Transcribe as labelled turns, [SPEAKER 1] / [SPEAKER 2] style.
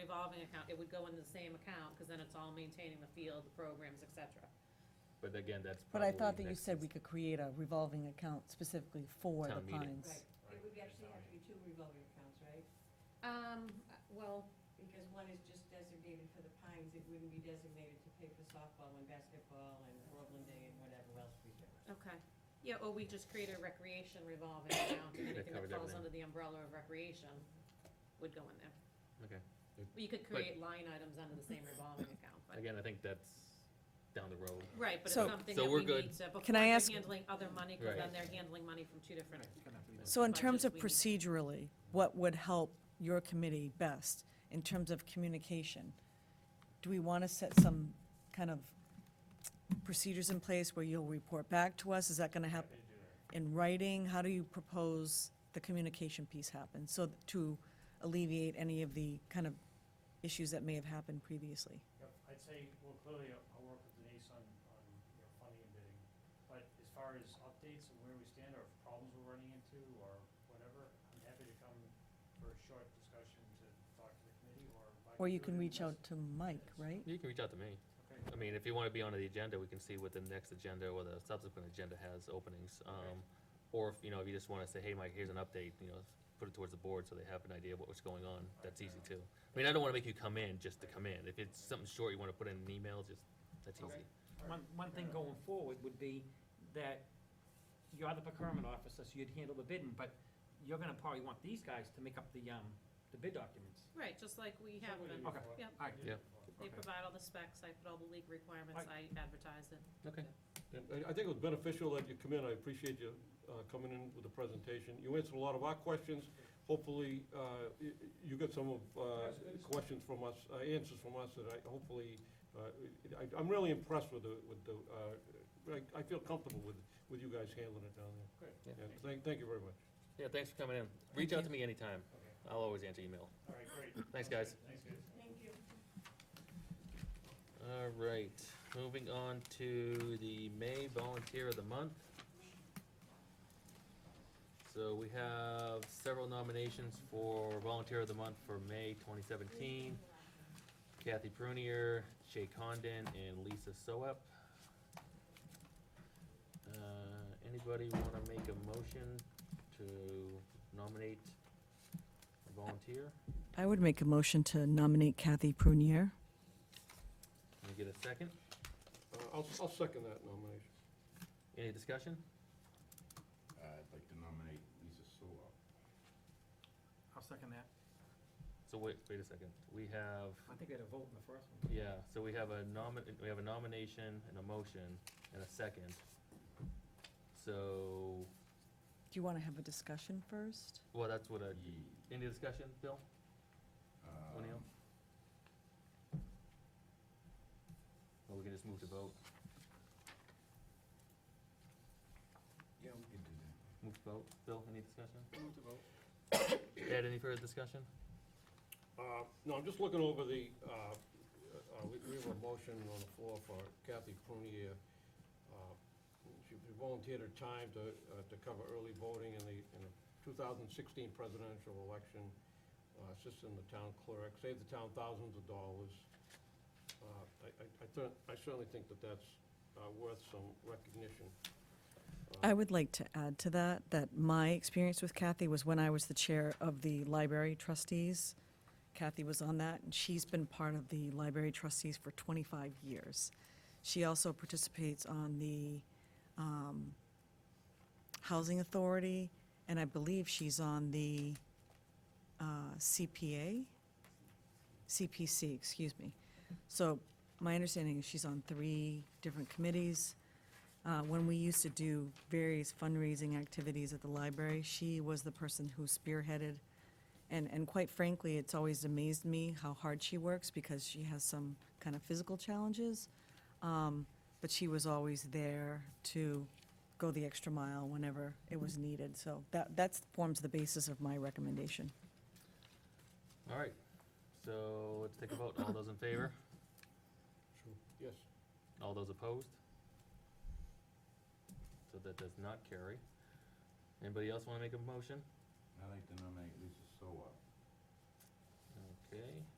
[SPEAKER 1] revolving account, it would go into the same account, because then it's all maintaining the field, the programs, et cetera.
[SPEAKER 2] But again, that's
[SPEAKER 3] But I
[SPEAKER 2] probably.
[SPEAKER 3] thought that you
[SPEAKER 2] next
[SPEAKER 3] said we
[SPEAKER 2] month's-
[SPEAKER 3] could create a revolving account specifically for the
[SPEAKER 2] Town meeting.
[SPEAKER 3] Pines.
[SPEAKER 4] Right, it would actually have to be two revolving accounts, right?
[SPEAKER 1] Um, uh, well,
[SPEAKER 4] Because one is just designated for the Pines, it wouldn't be designated to pay for softball and basketball and Groveland Day and whatever else we do.
[SPEAKER 1] okay. Yeah, or we just create a recreation revolving account, and anything that
[SPEAKER 2] covered
[SPEAKER 1] falls
[SPEAKER 2] everything.
[SPEAKER 1] under the umbrella of recreation would go in there.
[SPEAKER 2] Okay.
[SPEAKER 1] You could create line items under the same revolving account, but,
[SPEAKER 2] Again, I think that's down the road.
[SPEAKER 1] right, but it's
[SPEAKER 3] So-
[SPEAKER 1] something
[SPEAKER 2] So
[SPEAKER 1] that
[SPEAKER 2] we're
[SPEAKER 1] we
[SPEAKER 2] good.
[SPEAKER 1] need to, before
[SPEAKER 3] Can I
[SPEAKER 1] they're
[SPEAKER 3] ask-
[SPEAKER 1] handling other money, because
[SPEAKER 2] Right.
[SPEAKER 1] then they're handling money from two different.
[SPEAKER 3] So in terms of
[SPEAKER 1] Budgets
[SPEAKER 3] procedurally, what would help your committee best in terms of communication? Do we want to set some kind of procedures in place where you'll report back to us? Is that going to happen in writing? How do you propose the communication piece happen? So th- to alleviate any of the kind of issues that may have happened previously?
[SPEAKER 5] Yep, I'd say, well, clearly, I'll I'll work with Denise on, on, you know, funding and bidding. But as far as updates and where we stand, or problems we're running into, or whatever, I'm happy to come for a short discussion to talk to the committee, or. I
[SPEAKER 3] Or you
[SPEAKER 5] do it
[SPEAKER 3] can
[SPEAKER 5] in
[SPEAKER 3] reach out
[SPEAKER 5] message.
[SPEAKER 3] to Mike, right?
[SPEAKER 2] You can reach out to me.
[SPEAKER 5] Okay,
[SPEAKER 2] I mean, if you wanna be on the agenda, we can see what the next agenda or the subsequent agenda has openings. Um, or if, you know, if you just wanna say, hey, Mike, here's an update, you know, put it towards the board so they have an idea of what's going on, that's easy too. I mean, I don't wanna make you come in just to come in. If it's something short you wanna put in an email, just, that's
[SPEAKER 6] Okay.
[SPEAKER 2] easy.
[SPEAKER 6] One, one thing going forward would be that you're the procurement officer, so you'd handle the bidding, but you're gonna probably want these guys to make up the, um, the bid documents.
[SPEAKER 1] Right, just like we have
[SPEAKER 5] Somebody
[SPEAKER 1] been.
[SPEAKER 5] before.
[SPEAKER 6] Okay.
[SPEAKER 1] Yep.
[SPEAKER 6] All right.
[SPEAKER 2] Yeah.
[SPEAKER 1] They
[SPEAKER 6] Okay.
[SPEAKER 1] provide all the specs, I put all the league requirements, I advertise it.
[SPEAKER 2] Okay.
[SPEAKER 7] And I, I think it was beneficial that you come in, I appreciate you, uh, coming in with the presentation. You answered a lot of our questions, hopefully, uh, y- you got some of, uh, questions from us, uh, answers from us that I, hopefully, uh, I, I'm really impressed with the, with the, uh, I, I feel comfortable with, with you guys handling it down
[SPEAKER 5] Good.
[SPEAKER 2] Yeah.
[SPEAKER 7] there. Yeah, thank, thank you very much.
[SPEAKER 2] Yeah, thanks for coming in. Reach out to me anytime.
[SPEAKER 5] Okay,
[SPEAKER 2] I'll always answer email.
[SPEAKER 5] all right, great.
[SPEAKER 2] Thanks, guys.
[SPEAKER 5] Thanks, guys.
[SPEAKER 4] Thank you.
[SPEAKER 2] All right, moving on to the May Volunteer of the Month. So we have several nominations for Volunteer of the Month for May twenty seventeen. Kathy Prunier, Shay Condon, and Lisa Soep. Uh, anybody wanna make a motion to nominate a volunteer?
[SPEAKER 3] I would make a motion to nominate Kathy Prunier.
[SPEAKER 2] Can we get a second?
[SPEAKER 7] Uh, I'll, I'll second that nomination.
[SPEAKER 2] Any discussion?
[SPEAKER 8] Uh, I'd like to nominate Lisa Sewell.
[SPEAKER 6] I'll second that.
[SPEAKER 2] So wait, wait a second. We have
[SPEAKER 6] I think we had a vote in the first one.
[SPEAKER 2] Yeah, so we have a nomin, we have a nomination and a motion and a second. So,
[SPEAKER 3] Do you want to have a discussion first?
[SPEAKER 2] well, that's what I, any discussion, Bill? O'Neill? Or we can just move to vote,
[SPEAKER 8] Yeah, we can do that.
[SPEAKER 2] move to vote. Bill, any discussion? Ed, any further discussion?
[SPEAKER 7] Uh, No, I'm just looking over the, uh, uh, we we have a motion on the floor for Kathy Prunier. Uh, She volunteered her time to, uh, to cover early voting in the, in the 2016 presidential election, uh, assist in the town clerk, save the town thousands of dollars. Uh, I, I- I thir- I certainly think that that's uh, worth some recognition.
[SPEAKER 3] I would like to add to that, that my experience with Kathy was when I was the chair of the library trustees. Kathy was on that, and she's been part of the library trustees for 25 years. She also participates on the um, Housing Authority, and I believe she's on the uh, CPA? CPC, excuse me. So my understanding is she's on three different committees. Uh, When we used to do various fundraising activities at the library, she was the person who spearheaded. And, and quite frankly, it's always amazed me how hard she works because she has some kind of physical challenges. Um, But she was always there to go the extra mile whenever it was needed. So that, that forms the basis of my recommendation.
[SPEAKER 2] All right, so let's take a vote. All those in favor?
[SPEAKER 7] Yes,
[SPEAKER 2] All those opposed? So that does not carry. Anybody else wanna make a motion?
[SPEAKER 8] I'd like to nominate Lisa Sewell.
[SPEAKER 2] Okay,